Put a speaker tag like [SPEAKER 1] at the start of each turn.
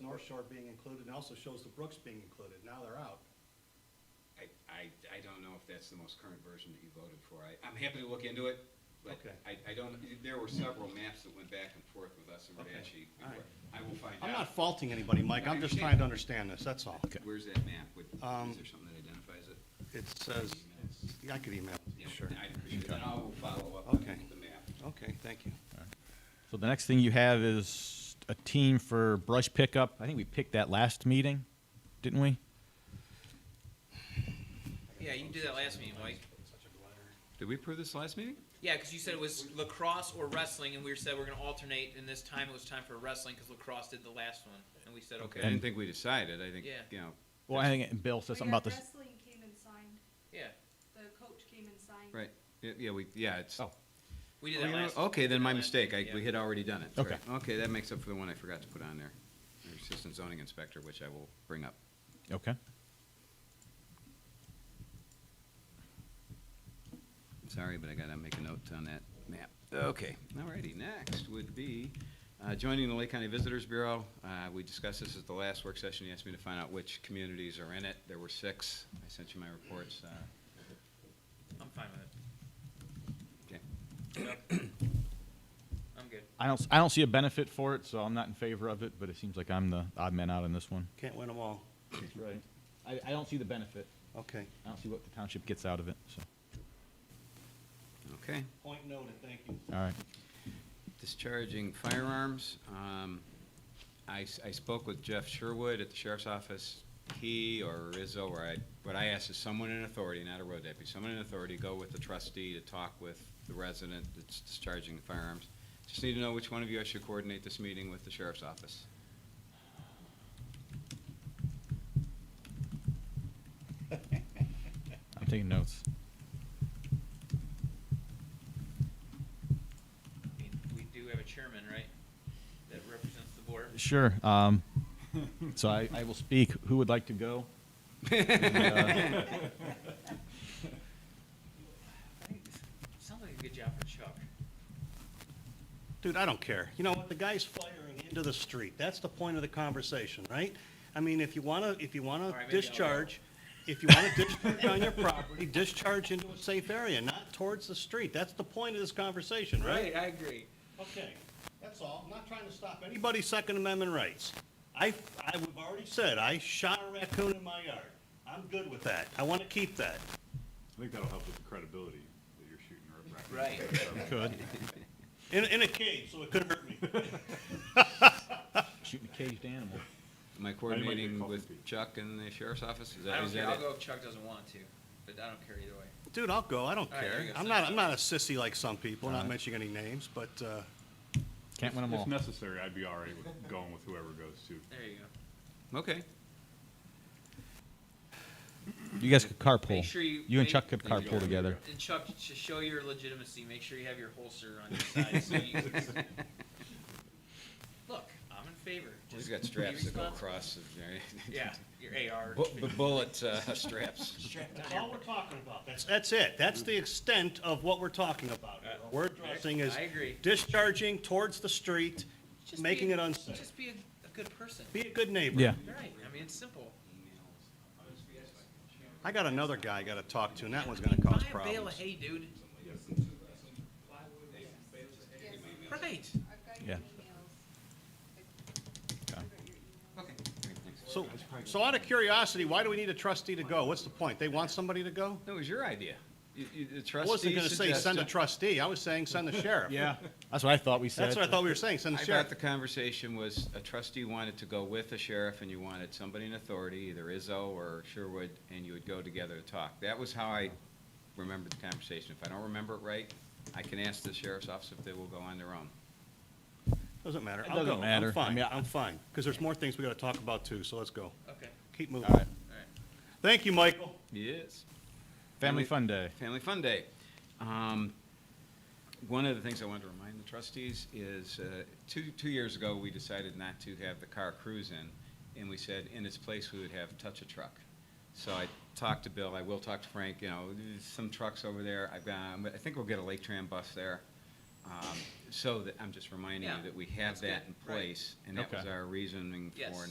[SPEAKER 1] North Shore being included, and also shows the Brooks being included, now they're out.
[SPEAKER 2] I, I, I don't know if that's the most current version that you voted for. I, I'm happy to look into it, but
[SPEAKER 1] Okay.
[SPEAKER 2] I, I don't, there were several maps that went back and forth with us and
[SPEAKER 1] Okay,
[SPEAKER 2] Radatchi.
[SPEAKER 1] all right.
[SPEAKER 2] I will find
[SPEAKER 1] I'm not
[SPEAKER 2] out.
[SPEAKER 1] faulting anybody, Mike, I'm just trying to understand this, that's all.
[SPEAKER 2] Where's that map? Would-
[SPEAKER 1] Um,
[SPEAKER 2] Is there something that identifies it?
[SPEAKER 1] It says, yeah, I could email it,
[SPEAKER 2] Yeah,
[SPEAKER 1] sure.
[SPEAKER 2] I appreciate it. Then I will follow up on
[SPEAKER 1] Okay.
[SPEAKER 2] the map.
[SPEAKER 1] Okay, thank you.
[SPEAKER 3] So the next thing you have is a team for brush pickup. I think we picked that last meeting, didn't we?
[SPEAKER 4] Yeah, you did that last meeting, Mike.
[SPEAKER 2] Did we approve this last meeting?
[SPEAKER 4] Yeah, because you said it was lacrosse or wrestling, and we said we're gonna alternate, and this time it was time for wrestling, because lacrosse did the last one, and we said,
[SPEAKER 2] Okay,
[SPEAKER 4] okay,
[SPEAKER 2] I didn't think we decided. I think,
[SPEAKER 4] Yeah.
[SPEAKER 2] you know,
[SPEAKER 3] Well, I think Bill said
[SPEAKER 5] Oh,
[SPEAKER 3] something
[SPEAKER 5] yeah,
[SPEAKER 3] about this.
[SPEAKER 5] Wrestling came and signed,
[SPEAKER 4] yeah,
[SPEAKER 5] the coach came and signed.
[SPEAKER 2] right, yeah, yeah, we, yeah, it's. Oh.
[SPEAKER 4] we did that last.
[SPEAKER 2] Okay, then my
[SPEAKER 4] Yeah.
[SPEAKER 2] mistake. I, we had already done it.
[SPEAKER 3] Okay.
[SPEAKER 2] Right. Okay, that makes up for the one I forgot to put on there. Assistant zoning inspector, which I will bring up.
[SPEAKER 3] Okay.
[SPEAKER 2] Sorry, but I gotta make a note on that map. Okay, alrighty, next would be uh, joining the Lake County Visitors Bureau. Uh, We discussed this at the last work session, you asked me to find out which communities are in it. There were six, I sent you my reports. uh,
[SPEAKER 4] I'm fine with
[SPEAKER 2] Okay.
[SPEAKER 4] it. I'm good.
[SPEAKER 3] I don't, s- I don't see a benefit for it, so I'm not in favor of it, but it seems like I'm the odd man out on this one.
[SPEAKER 1] Can't win them all,
[SPEAKER 3] Right. I, I don't see the benefit.
[SPEAKER 1] okay.
[SPEAKER 3] I don't see what the township gets out of it, so,
[SPEAKER 2] Okay,
[SPEAKER 1] Point noted, thank you.
[SPEAKER 3] all right.
[SPEAKER 2] discharging firearms. Um, I, s- I spoke with Jeff Sherwood at the sheriff's office. He or Rizzo, or I, what I asked is someone in authority, not a road deputy, someone in authority, go with the trustee to talk with the resident that's discharging the firearms. Just need to know which one of you I should coordinate this meeting with the sheriff's office.
[SPEAKER 3] I'm taking notes.
[SPEAKER 4] I mean, We do have a chairman, right, that represents the board?
[SPEAKER 3] Sure, um, so I, I will speak. Who would like to go?
[SPEAKER 4] I think this Sounds like a good job for Chuck.
[SPEAKER 1] Dude, I don't care. You know what? The guy's firing into the street. That's the point of the conversation, right? I mean, if you want to, if you want
[SPEAKER 4] All right,
[SPEAKER 1] to
[SPEAKER 4] maybe I'll go.
[SPEAKER 1] discharge, if you want to discharge on your property, discharge into a safe area, not towards the street. That's the point of this conversation, right?
[SPEAKER 4] I agree.
[SPEAKER 1] Okay, that's all. I'm not trying to stop anybody's Second Amendment rights. I, I have already said, I shot a raccoon in my yard. I'm good with that. I want to keep that.
[SPEAKER 6] I think that'll help with the credibility that you're shooting. a raccoon.
[SPEAKER 4] Right.
[SPEAKER 3] Could.
[SPEAKER 1] In, in a cage, so it couldn't hurt me.
[SPEAKER 3] Shooting a caged animal.
[SPEAKER 2] Am I coordinating with Chuck and the sheriff's office? Is that-
[SPEAKER 4] I don't
[SPEAKER 2] is
[SPEAKER 4] care,
[SPEAKER 2] that
[SPEAKER 4] I'll
[SPEAKER 2] it?
[SPEAKER 4] go if Chuck doesn't want to, but I don't care either way.
[SPEAKER 1] Dude, I'll go. I don't
[SPEAKER 4] All right, there
[SPEAKER 1] care.
[SPEAKER 4] you go.
[SPEAKER 1] I'm not, I'm not a sissy like some people, not mentioning any names, but, uh,
[SPEAKER 3] Can't win them all.
[SPEAKER 6] If necessary, I'd be all right with going with whoever goes to.
[SPEAKER 4] There you go.
[SPEAKER 2] Okay.
[SPEAKER 3] You guys could carpool.
[SPEAKER 4] Make sure you-
[SPEAKER 3] You and
[SPEAKER 4] make-
[SPEAKER 3] Chuck could
[SPEAKER 4] There you
[SPEAKER 3] carpool together.
[SPEAKER 4] And Chuck, to show your legitimacy, make sure you have your holster on your side. So you, look, I'm in favor.
[SPEAKER 2] He's
[SPEAKER 4] Just
[SPEAKER 2] got
[SPEAKER 4] be
[SPEAKER 2] straps that go
[SPEAKER 4] responsible.
[SPEAKER 2] across. there.
[SPEAKER 4] Yeah, your AR.
[SPEAKER 2] Bu- bu- Bullet uh, straps.
[SPEAKER 1] That's all we're talking about. That's, that's it. That's the extent of what we're talking about. here. What We're addressing is
[SPEAKER 4] Uh, I agree.
[SPEAKER 1] discharging towards the street,
[SPEAKER 4] Just
[SPEAKER 1] making
[SPEAKER 4] be-
[SPEAKER 1] it unsafe.
[SPEAKER 4] Just be a, a good person.
[SPEAKER 1] Be a good neighbor.
[SPEAKER 3] Yeah.
[SPEAKER 4] Right. I mean, it's simple.
[SPEAKER 1] I got another guy I gotta talk to, and that one's gonna cause
[SPEAKER 4] Buy a bale of
[SPEAKER 1] problems.
[SPEAKER 4] hay, dude.
[SPEAKER 5] Yes,
[SPEAKER 4] Right.
[SPEAKER 5] I've got
[SPEAKER 3] Yeah.
[SPEAKER 5] your emails. I've got your emails.
[SPEAKER 1] So, so out of curiosity, why do we need a trustee to go? What's the point? They want somebody to go?
[SPEAKER 2] That was your idea. You, you, the
[SPEAKER 1] I
[SPEAKER 2] trustee
[SPEAKER 1] wasn't gonna say send a
[SPEAKER 2] suggested-
[SPEAKER 1] trustee. I was saying send the sheriff.
[SPEAKER 3] Yeah. That's what I thought we said.
[SPEAKER 1] That's what I thought we were saying, send the
[SPEAKER 2] I thought
[SPEAKER 1] sheriff.
[SPEAKER 2] the conversation was a trustee wanted to go with a sheriff and you wanted somebody in authority, either Izzo or Sherwood, and you would go together to talk. That was how I remembered the conversation. If I don't remember it right, I can ask the sheriff's office if they will go on their own.
[SPEAKER 1] Doesn't matter.
[SPEAKER 3] It
[SPEAKER 1] I'll
[SPEAKER 3] doesn't
[SPEAKER 1] go. I'm
[SPEAKER 3] matter. I
[SPEAKER 1] fine.
[SPEAKER 3] mean, I-
[SPEAKER 1] I'm fine. Because there's more things we gotta talk about too, so let's go.
[SPEAKER 4] Okay.
[SPEAKER 1] Keep moving.
[SPEAKER 3] All right.
[SPEAKER 4] All right.
[SPEAKER 1] Thank you, Michael.
[SPEAKER 2] Yes.
[SPEAKER 3] Family
[SPEAKER 2] Family-
[SPEAKER 3] Fun Day.
[SPEAKER 2] Family Fun Day. Um, One of the things I wanted to remind the trustees is, uh, two, two years ago, we decided not to have the car cruise in, and we said in its place, we would have touch a truck. So I talked to Bill, I will talk to Frank, you know, there's some trucks over there, I've got, um, I think we'll get a Lake Tram bus there. Um, So that, I'm just reminding you
[SPEAKER 4] Yeah,
[SPEAKER 2] that we have
[SPEAKER 4] good,
[SPEAKER 2] that in
[SPEAKER 4] right.
[SPEAKER 2] place, and that was
[SPEAKER 3] Okay.
[SPEAKER 2] our reasoning
[SPEAKER 4] Yes.
[SPEAKER 2] for